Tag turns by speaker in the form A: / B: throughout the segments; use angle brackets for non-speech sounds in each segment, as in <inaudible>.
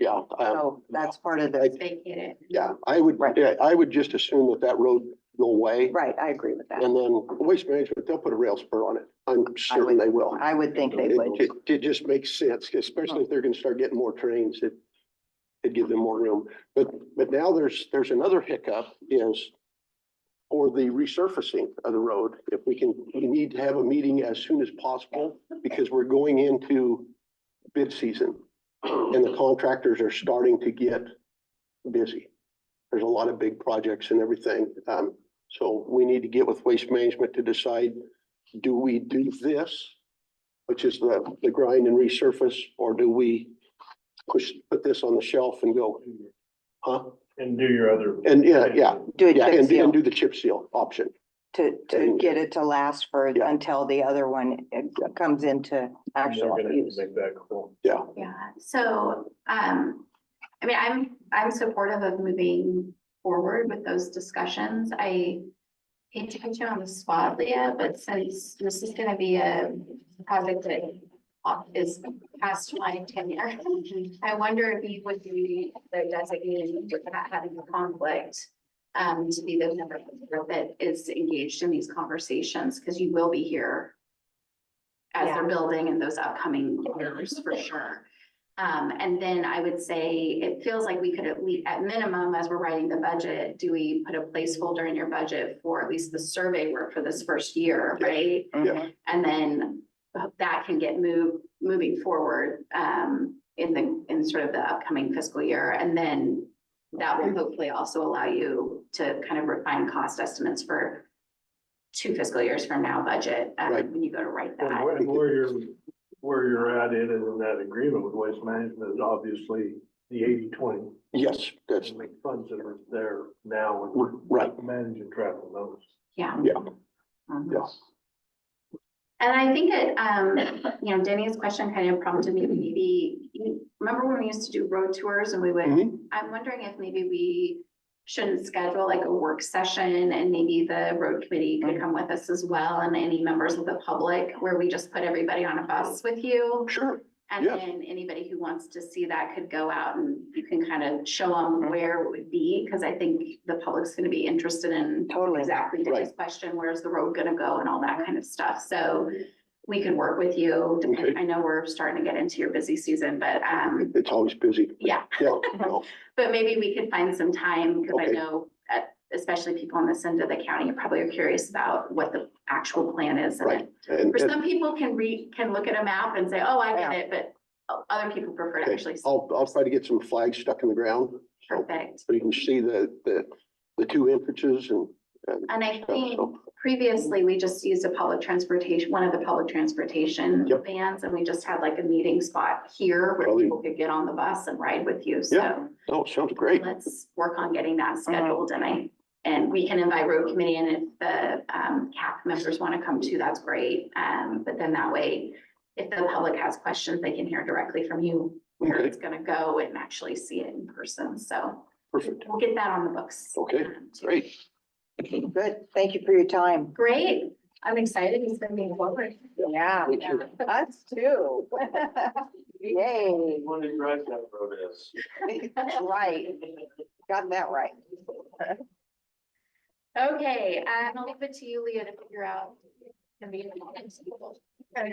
A: Yeah, I,
B: So that's part of
A: I-
B: the,
C: vacated.
A: yeah, I would,
B: Oh. Right.
A: yeah, I would just assume that that road go away.
B: right, I agree with that.
A: And then waste management, they'll put a rail spur on it. I'm certain they will.
B: I would think they
A: It,
B: would.
A: it, it just makes sense, especially if they're gonna start getting more trains, it, it'd give them more room. But, but now there's, there's another hiccup is for the resurfacing of the road, if we can, we need to have a meeting as soon as possible because we're going into bid season and the contractors are starting to get busy. There's a lot of big projects and everything. Um, so we need to get with Waste Management to decide, do we do this? which is the, the grind and resurface, or do we push, put this on the shelf and go, huh?
D: And do your other.
A: And Uh, yeah, yeah,
B: Do a
A: yeah,
B: chip
A: and,
B: seal
A: and do the chip seal option.
B: to, to
A: and-
B: get it to last for,
A: Yeah.
B: until the other one uh, comes into
D: and they're
B: actual
D: gonna
B: use.
D: Make that cool.
C: Yeah, so, um, I mean, I'm, I'm supportive of moving forward with those discussions. I hate to put you on the spot, Leah, but since this is gonna be a project that is past my tenure, I wonder if you would be the designated without having a conflict um, to be the member that is engaged in these conversations, because you will be here as they're building in those upcoming years, for sure. Um, and then I would say, it feels like we could at least, at minimum, as we're writing the budget, do we put a placeholder in your budget for at least the survey work for this first year, right?
B: Mhm.
C: And then that can get moved, moving forward, um, in the, in sort of the upcoming fiscal year. And then that will hopefully also allow you to kind of refine cost estimates for two fiscal years from now budget, um,
A: Right.
C: when you go to write that.
D: And where, and where you're, where you're at in, in that agreement with Waste Management is obviously the eighty twenty.
A: Yes, that's
D: Funds that are there now with
A: right,
D: managing travel notes.
C: Yeah.
A: Yeah.
C: Mhm.
A: yes.
C: And I think it, um, you know, Denny's question kind of prompted me to maybe, you remember when we used to do road tours and we would,
A: Mhm.
C: I'm wondering if maybe we shouldn't schedule like a work session and maybe the road committee could come with us as well and any members of the public where we just put everybody on a bus with you.
A: Sure,
C: And
A: Yes.
C: then anybody who wants to see that could go out and you can kind of show them where it would be, because I think the public's gonna be interested in
B: Totally.
C: exactly
A: Right.
C: Dick's question, where's the road gonna go and all that kind of stuff, so we could work with you.
A: Okay.
C: I know we're starting to get into your busy season, but, um,
A: it's always busy.
C: yeah,
A: Yeah, no,
C: but maybe we could find some time, because I
A: Okay.
C: know uh especially people on this end of the county probably are curious about what the actual plan is. and
A: Right. and,
C: For
A: and
C: some people can read, can look at a map and say, oh, I get
B: Yeah.
C: it, but o- other people prefer to
A: Okay, Oh,
C: actually. see.
A: I'll, I'll try to get some flags stuck in the ground,
C: Perfect.
A: so you can see the, the, the two entrances and, and
C: And I
A: stuff,
C: think
A: so,
C: previously, we just used a public transportation, one of the public transportation
A: Yep.
C: vans, and we just had like a meeting spot here where
A: Probably.
C: people could get on the bus and ride with you,
A: Yeah.
C: so
A: oh, sounds great. Uh-huh.
C: let's work on getting that scheduled, and I, and we can invite road committee, and if the um CAC members want to come too, that's great. Um, but then that way, if the public has questions, they can hear directly from you where
A: Okay.
C: it's gonna go and actually see it in person, so
A: Perfect,
C: we'll get that on the books.
A: Okay,
C: um, too.
A: great,
B: Good. Thank you for your time.
C: Great, I'm excited, it's been moving forward.
B: Yeah,
A: Me too.
B: us too. <laughs> Yay.
D: When you drive that road is.
B: Right. Got that right.
C: Okay, um, I'll leave it to you, Leah, to figure out. the meeting minutes.
E: What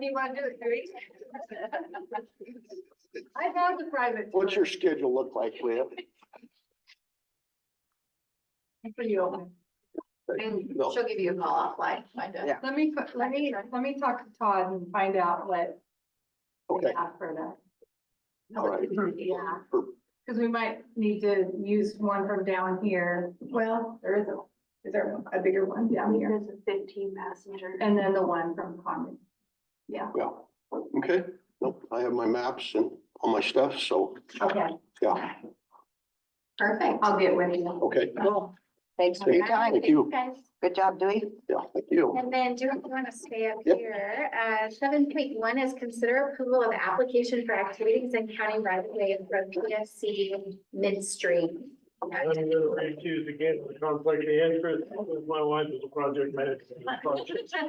E: do you want to do, three? I have the private.
A: what's your schedule look like,
C: <laughs>
A: Leah?
E: For you.
C: And
A: No.
C: she'll give you a call offline, find out.
B: Yeah.
E: Let me, let me, let me talk to Todd and find out what. we
A: Okay,
E: have For that,
A: all right,
C: Yeah,
E: because we might need to use one from down here. Well, there is a, is there a bigger one down here?
F: There's a fifteen passenger.
E: And then the one from Conway. Yeah,
A: well, okay, nope, I have my maps and all my stuff, so,
E: okay,
A: yeah,
C: perfect.
E: I'll get with you.
A: okay.
B: Cool. Thanks for your time.
A: Thank you.
C: Guys,
B: Good job, Dewey.
A: Yeah, thank you.
C: And then do you want to stay up
A: Yep.
C: here? Uh, seven point one is consider approval of application for activities in county right of way from PFC midstream.
D: I'm gonna recuse again for conflict of interest, because my wife is a project manager.